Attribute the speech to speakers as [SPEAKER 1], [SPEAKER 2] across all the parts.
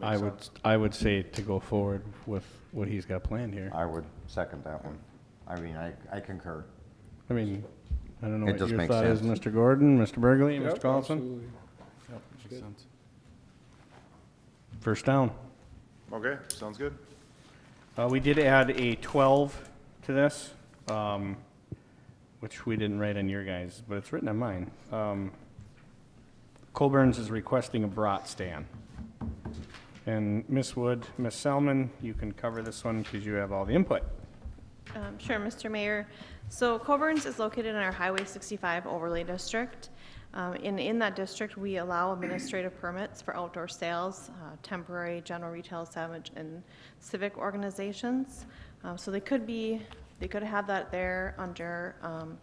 [SPEAKER 1] I would, I would say to go forward with what he's got planned here.
[SPEAKER 2] I would second that one. I mean, I, I concur.
[SPEAKER 1] I mean, I don't know
[SPEAKER 2] It
[SPEAKER 1] what
[SPEAKER 2] just
[SPEAKER 1] your
[SPEAKER 2] makes
[SPEAKER 1] thought is,
[SPEAKER 2] sense.
[SPEAKER 1] Mr. Gordon, Mr. Burgley, Mr.
[SPEAKER 3] Yep,
[SPEAKER 1] Collison?
[SPEAKER 3] absolutely.
[SPEAKER 4] Makes sense.
[SPEAKER 1] First down.
[SPEAKER 4] Okay, sounds good.
[SPEAKER 1] Uh, we did add a twelve to this, um, which we didn't write on your guys, but it's written on mine. Um, Colburns is requesting a brat stand. And Miss Wood, Miss Selman, you can cover this one because you have all the input.
[SPEAKER 5] Um, Sure, Mr. Mayor. So Coburn's is located in our Highway 65 overlay district. Um, And in that district, we allow administrative permits for outdoor sales, uh, temporary general retail salvage, and civic organizations. Um, So they could be, they could have that there under um,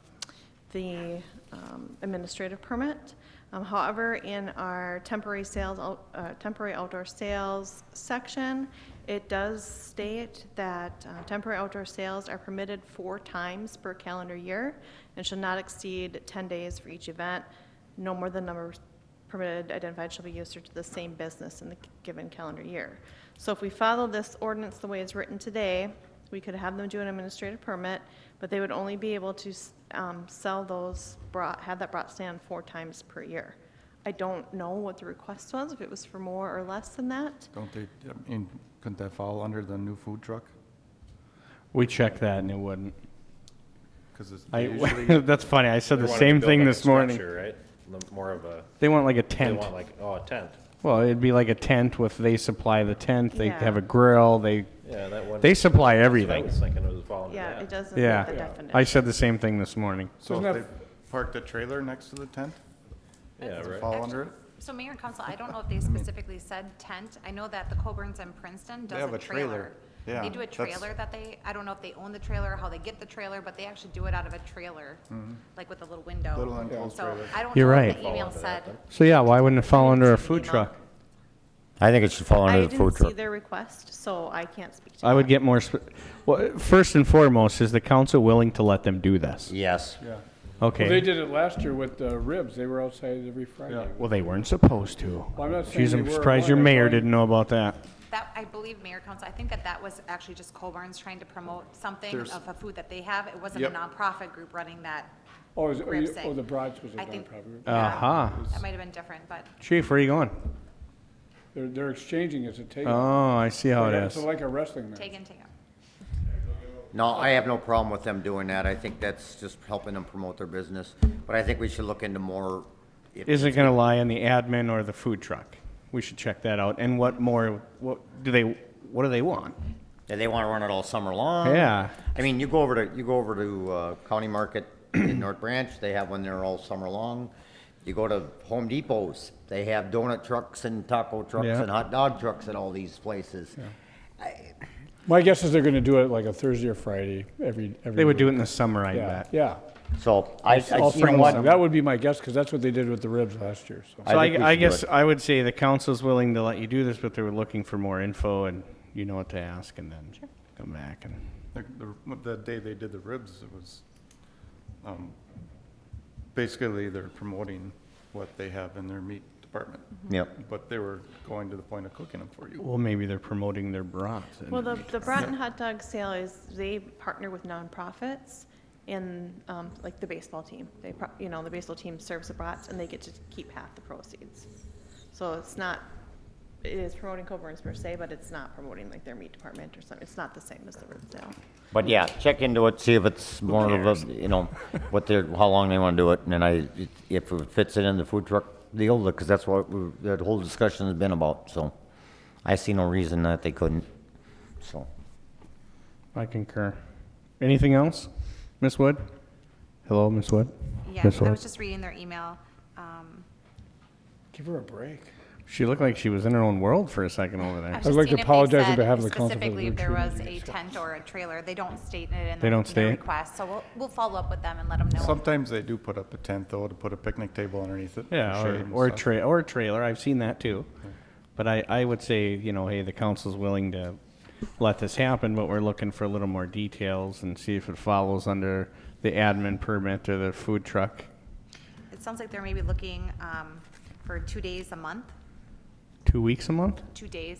[SPEAKER 5] the um, administrative permit. Um, However, in our temporary sales, out- uh, temporary outdoor sales section, it does state that uh, temporary outdoor sales are permitted four times per calendar year and should not exceed 10 days for each event. No more than number permitted identified shall be used to the same business in the given calendar year. So if we follow this ordinance the way it's written today, we could have them do an administrative permit, but they would only be able to um, sell those, brought, have that brought stand four times per year. I don't know what the request was, if it was for more or less than that.
[SPEAKER 6] Don't they, I mean, couldn't that fall under the new food truck?
[SPEAKER 1] We checked that and it wouldn't.
[SPEAKER 6] Because it's they
[SPEAKER 1] I,
[SPEAKER 6] usually,
[SPEAKER 1] that's funny, I said
[SPEAKER 7] They
[SPEAKER 1] the
[SPEAKER 7] wanted to
[SPEAKER 1] same
[SPEAKER 7] build
[SPEAKER 1] thing
[SPEAKER 7] like a
[SPEAKER 1] this morning.
[SPEAKER 7] structure, Right? The- More of a,
[SPEAKER 1] They want like a
[SPEAKER 7] they
[SPEAKER 1] tent.
[SPEAKER 7] want like, oh, a tent.
[SPEAKER 1] Well, it'd be like a tent with, they supply the tent, they
[SPEAKER 5] Yeah.
[SPEAKER 1] have a grill, they,
[SPEAKER 7] Yeah, that one.
[SPEAKER 1] they supply
[SPEAKER 7] I
[SPEAKER 1] everything.
[SPEAKER 7] was thinking it was falling under
[SPEAKER 5] Yeah, it
[SPEAKER 7] that.
[SPEAKER 5] doesn't meet the
[SPEAKER 1] Yeah.
[SPEAKER 5] definition.
[SPEAKER 1] I said the same thing this morning.
[SPEAKER 6] so
[SPEAKER 3] Doesn't
[SPEAKER 6] if they
[SPEAKER 3] that-
[SPEAKER 6] park the trailer next to the tent,
[SPEAKER 7] Yeah,
[SPEAKER 6] does it
[SPEAKER 7] right.
[SPEAKER 6] fall under it?
[SPEAKER 8] So Mayor and Council, I don't know if they specifically said tent. I know that the Coburns and Princeton does
[SPEAKER 6] have
[SPEAKER 8] a
[SPEAKER 6] a trailer.
[SPEAKER 8] trailer.
[SPEAKER 6] Yeah,
[SPEAKER 8] They do a
[SPEAKER 6] that's-
[SPEAKER 8] trailer that they, I don't know if they own the trailer, or how they get the trailer, but they actually do it out of a trailer, like with a little window.
[SPEAKER 6] Mm-hmm. Little enclosed trailer.
[SPEAKER 8] So I don't
[SPEAKER 1] You're
[SPEAKER 8] know
[SPEAKER 1] right.
[SPEAKER 8] if the email said,
[SPEAKER 1] So yeah, why wouldn't it fall under a
[SPEAKER 8] see the
[SPEAKER 1] food
[SPEAKER 8] email.
[SPEAKER 1] truck?
[SPEAKER 2] I think it should fall
[SPEAKER 5] I
[SPEAKER 2] under the
[SPEAKER 5] didn't
[SPEAKER 2] food
[SPEAKER 5] see
[SPEAKER 2] truck.
[SPEAKER 5] their request, so I can't speak to that.
[SPEAKER 1] I would get more, sp- well, first and foremost, is the council willing to let them do this?
[SPEAKER 2] Yes.
[SPEAKER 3] Yeah. Well, They
[SPEAKER 1] Okay.
[SPEAKER 3] did it last year with the ribs. They were outside every Friday.
[SPEAKER 1] Well, they weren't supposed to.
[SPEAKER 3] Well, I'm not saying
[SPEAKER 1] Geez,
[SPEAKER 3] they
[SPEAKER 1] I'm
[SPEAKER 3] were,
[SPEAKER 1] surprised
[SPEAKER 3] but
[SPEAKER 1] your
[SPEAKER 3] I'm
[SPEAKER 1] mayor
[SPEAKER 3] telling you-
[SPEAKER 1] didn't know about that.
[SPEAKER 8] that, I believe Mayor and Council, I think that that was actually just Coburns trying to promote something
[SPEAKER 6] There's-
[SPEAKER 8] of a food that they have. It wasn't a
[SPEAKER 6] Yep.
[SPEAKER 8] nonprofit group running that.
[SPEAKER 3] Oh, is, oh,
[SPEAKER 8] Rib
[SPEAKER 3] you-
[SPEAKER 8] sink.
[SPEAKER 3] oh, the Broads was a
[SPEAKER 8] I think.
[SPEAKER 3] nonprofit.
[SPEAKER 8] yeah,
[SPEAKER 1] Aha.
[SPEAKER 8] um, That might have been different, but.
[SPEAKER 1] Chief, where are you going?
[SPEAKER 3] They're, they're exchanging as a take.
[SPEAKER 1] Oh, I see how it
[SPEAKER 3] It's
[SPEAKER 1] is.
[SPEAKER 3] like a wrestling match.
[SPEAKER 8] Take in, take out.
[SPEAKER 2] No, I have no problem with them doing that. I think that's just helping them promote their business. But I think we should look into more. if-
[SPEAKER 1] Is it gonna lie on the admin or the food truck? We should check that out. And what more, what do they, what do they want?
[SPEAKER 2] Do they want to run it all summer long?
[SPEAKER 1] Yeah.
[SPEAKER 2] I mean, you go over to, you go over to uh, County Market in North Branch, they have one there all summer long. You go to Home Depots, they have donut trucks and taco trucks
[SPEAKER 1] Yeah.
[SPEAKER 2] and hot dog trucks at all these places.
[SPEAKER 3] My guess is they're gonna do it like a Thursday or Friday, every, every.
[SPEAKER 1] They would
[SPEAKER 3] week.
[SPEAKER 1] do it in the summer, I
[SPEAKER 3] Yeah,
[SPEAKER 1] bet.
[SPEAKER 3] yeah.
[SPEAKER 2] So I, I,
[SPEAKER 3] All
[SPEAKER 2] you know
[SPEAKER 3] spring long.
[SPEAKER 2] what?
[SPEAKER 3] That would be my guess, because that's what they did with the ribs last year, so.
[SPEAKER 1] So
[SPEAKER 2] I think we
[SPEAKER 1] I, I
[SPEAKER 2] should do
[SPEAKER 1] guess
[SPEAKER 2] it.
[SPEAKER 1] I would say the council's willing to let you do this, but they were looking for more info and you know what to ask and then come back and.
[SPEAKER 6] The- the- The day they did the ribs, it was, um, basically they're promoting what they have in their meat department.
[SPEAKER 2] Yep.
[SPEAKER 6] But they were going to the point of cooking them for you.
[SPEAKER 1] Well, maybe they're promoting their brats. and-
[SPEAKER 5] Well, the, the Broughton Hot Dog Sale is, they partner with nonprofits in, um, like the baseball team. They, pro- you know, the baseball team serves the brats and they get to keep half the proceeds. So it's not, it is promoting Coburn's per se, but it's not promoting like their meat department or something. It's not the same as the rib sale.
[SPEAKER 2] But yeah, check into it, see if it's more of a, you know, what they're, how long they want to do it, and then I, if it fits it in the food truck deal, because that's what we- that whole discussion has been about, so. I see no reason that they couldn't, so.
[SPEAKER 1] I concur. Anything else? Miss Wood? Hello, Miss Wood?
[SPEAKER 8] Yeah,
[SPEAKER 1] Miss
[SPEAKER 8] I
[SPEAKER 1] Wood?
[SPEAKER 8] was just reading their email. Um,
[SPEAKER 3] Give her a break.
[SPEAKER 1] She looked like she was in her own world for a second over there.
[SPEAKER 8] was
[SPEAKER 3] I'd
[SPEAKER 8] just seeing
[SPEAKER 3] like to
[SPEAKER 8] if they
[SPEAKER 3] apologize on
[SPEAKER 8] said
[SPEAKER 3] behalf of the council for the
[SPEAKER 8] Specifically, if there
[SPEAKER 3] retreat
[SPEAKER 8] was a tent or a trailer, they don't state it in
[SPEAKER 1] They
[SPEAKER 8] their
[SPEAKER 1] don't
[SPEAKER 8] their
[SPEAKER 1] state?
[SPEAKER 8] request, so we'll, we'll follow up with them and let them know.
[SPEAKER 6] Sometimes they do put up a tent though, to put a picnic table underneath it. for
[SPEAKER 1] Yeah,
[SPEAKER 6] shade
[SPEAKER 1] or,
[SPEAKER 6] and
[SPEAKER 1] or a
[SPEAKER 6] stuff.
[SPEAKER 1] tra- or a trailer. I've seen that too. But I, I would say, you know, hey, the council's willing to let this happen, but we're looking for a little more details and see if it follows under the admin permit or the food truck.
[SPEAKER 8] It sounds like they're maybe looking um, for two days a month,
[SPEAKER 1] Two weeks a month?
[SPEAKER 8] two days